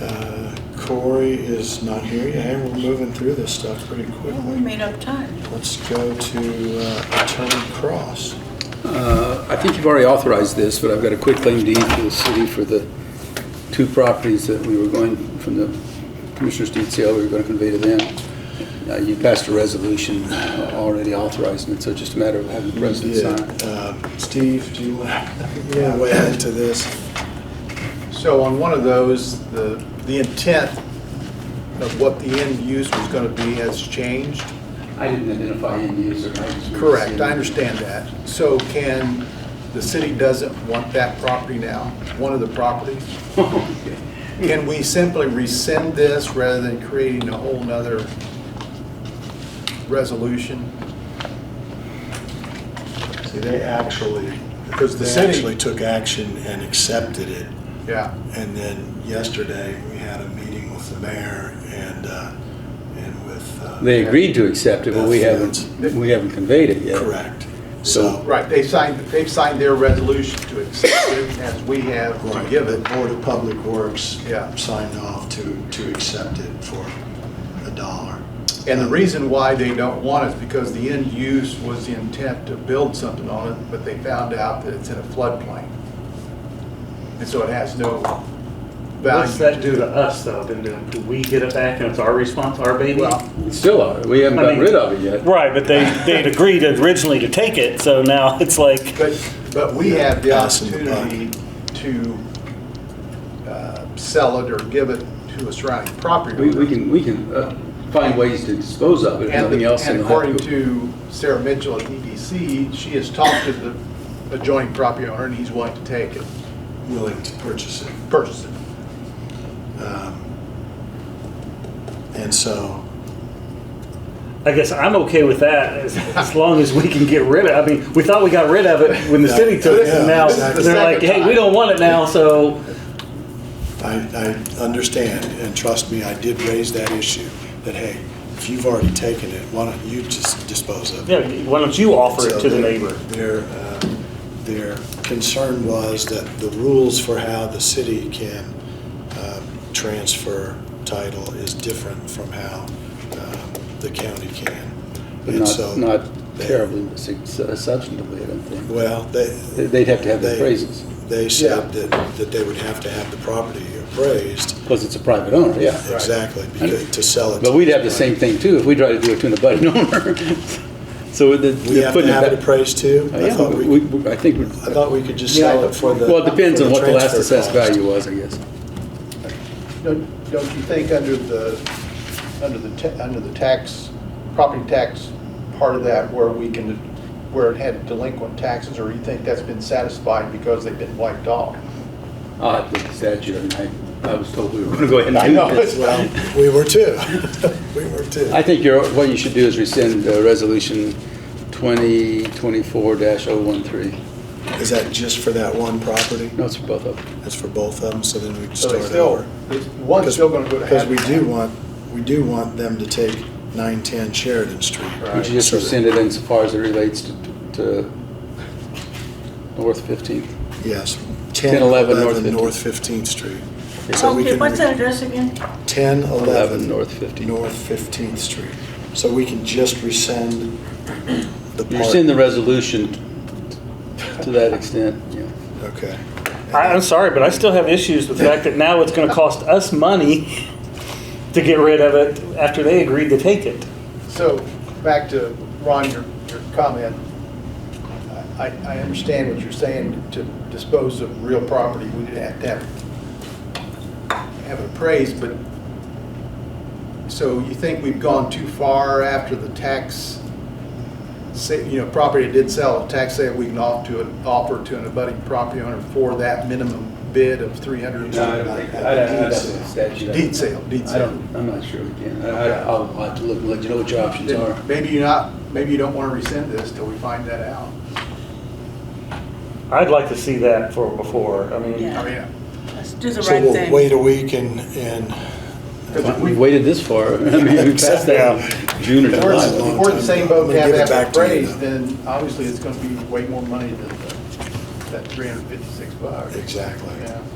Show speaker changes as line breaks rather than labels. Uh, Corey is not here yet, and we're moving through this stuff pretty
Well, we
quickly.
made up time.
Let's go to uh, Attorney Cross.
Uh, I think you've already authorized this, but I've got a quick claim deed to the city for the two properties that we were going, from the commissioner's deed sale, we were going to convey to them. Uh, You passed a resolution uh, already authorizing it, so it's just a matter of having the president sign.
Yeah, uh, Steve, do you want to weigh into this?
So on one of those, the, the intent of what the end use was going to be has changed?
I didn't identify end user. I just-
Correct, I understand that. So can, the city doesn't want that property now, one of the properties? Can we simply rescind this rather than creating a whole nother resolution?
See, they actually,
Because the
they
city-
actually took action and accepted it.
Yeah,
And then yesterday, we had a meeting with the mayor and, uh, and with. uh,
They agreed to accept it, but we haven't, we haven't conveyed it yet.
Correct.
So-
So,
right, they signed, they've signed their resolution to accept it as we have to
right,
give
the
it.
Board of Public Works
Yeah.
signed off to, to accept it for a dollar.
And the reason why they don't want it is because the end use was the intent to build something on it, but they found out that it's in a floodplain. And so it has no
What's
value.
that do to us though? Then do- do we get it back and it's our response, our baby?
Well,
It's Still, are. we haven't gotten rid of it yet.
Right, but they, they'd agreed originally to take it, so now it's like,
but, but we have the
Passing the buck.
opportunity to uh, sell it or give it to a surrounding property
We,
owner.
we can, we can uh, find ways to dispose of it, if
And
nothing
the-
else.
and
it'll have
according
go-
to Sarah Mitchell at EDC, she has talked to the adjoining property owner and he's willing to take it,
Willing to purchase it.
purchase it.
Um, And so,
I guess I'm okay with that as, as long as we can get rid of, I mean, we thought we got rid of it when the city took it, and now
Yeah, exactly.
they're like, hey, we don't want it now, so.
I, I understand, and trust me, I did raise that issue, that hey, if you've already taken it, why don't you just dispose of it?
Yeah, why don't you offer it
So
to the
their-
neighbor?
Their, uh, their concern was that the rules for how the city can um, transfer title is different from how um, the county can.
But
And so
not, not
they-
terribly sig- substantively, I don't think.
Well, they.
They'd have to have the
they-
appraisals.
They said that, that they would have to have the property appraised.
Because it's a private owner, yeah.
Exactly, because, to sell it.
But we'd have the same thing too if we tried to do it to an abutting owner. So the.
We have to have it appraised too? I
Oh, Yeah,
thought
we-
we,
we- I think, we-
I thought we could just
Yeah, I
sell it
thought-
for the.
well, it depends on
for
what the last
transfer
assessed
cost.
value was, I guess.
Don't don't you think under the, under the, ta- under the tax, property tax part of that where we can, where it had delinquent taxes, or you think that's been satisfied because they've been wiped off?
I'll have to look at the statute, I mean, I, I was told we were gonna go ahead
I
and
know.
do this.
Well, we were too. We were too.
I think you're, what you should do is rescind uh, resolution twenty twenty-four dash oh one three.
Is that just for that one property?
No, it's for both of them.
That's for both of them, so then we can
So they
start
still,
over?
one's still going to go to
Because
half.
we do want, we do want them to take 910 Sheridan Street.
Would you just
So that-
rescind it insofar as it relates to, to North 15th?
Yes.
1011 North 15th.
North 15th Street. So we
Okay,
can
what's that address again?
1011
North 15th.
North 15th Street. So we can just rescind the part.
You rescind the resolution to that extent, yeah.
Okay.
I, I'm sorry, but I still have issues with the fact that now it's gonna cost us money to get rid of it after they agreed to take it.
So, back to Ron, your, your comment. I, I understand what you're saying, to dispose of real property, we would have to have, have it appraised, but, so you think we've gone too far after the tax, say, you know, property did sell, a tax sale, we can offer to, an- offer to an abutting property owner for that minimum bid of three hundred?
statute.
Deed sale, deed
I
sale.
don't, I'm not sure we can. I, I- I'll have to look and let you know what your options are.
Maybe you're not, maybe you don't want to rescind this till we find that out.
I'd like to see that for, before, I mean.
Yeah.
I mean,
Let's do the
So
right
we'll
thing.
wait a week and, and
because
We
we,
have waited this far. I mean, we passed that in June or
if we're
July.
if we're in the same boat, to
I'm
have
gonna give it
that
back to you
appraised,
now.
then obviously it's going to be way more money than the- that 356 bucks.
Exactly.
Yeah.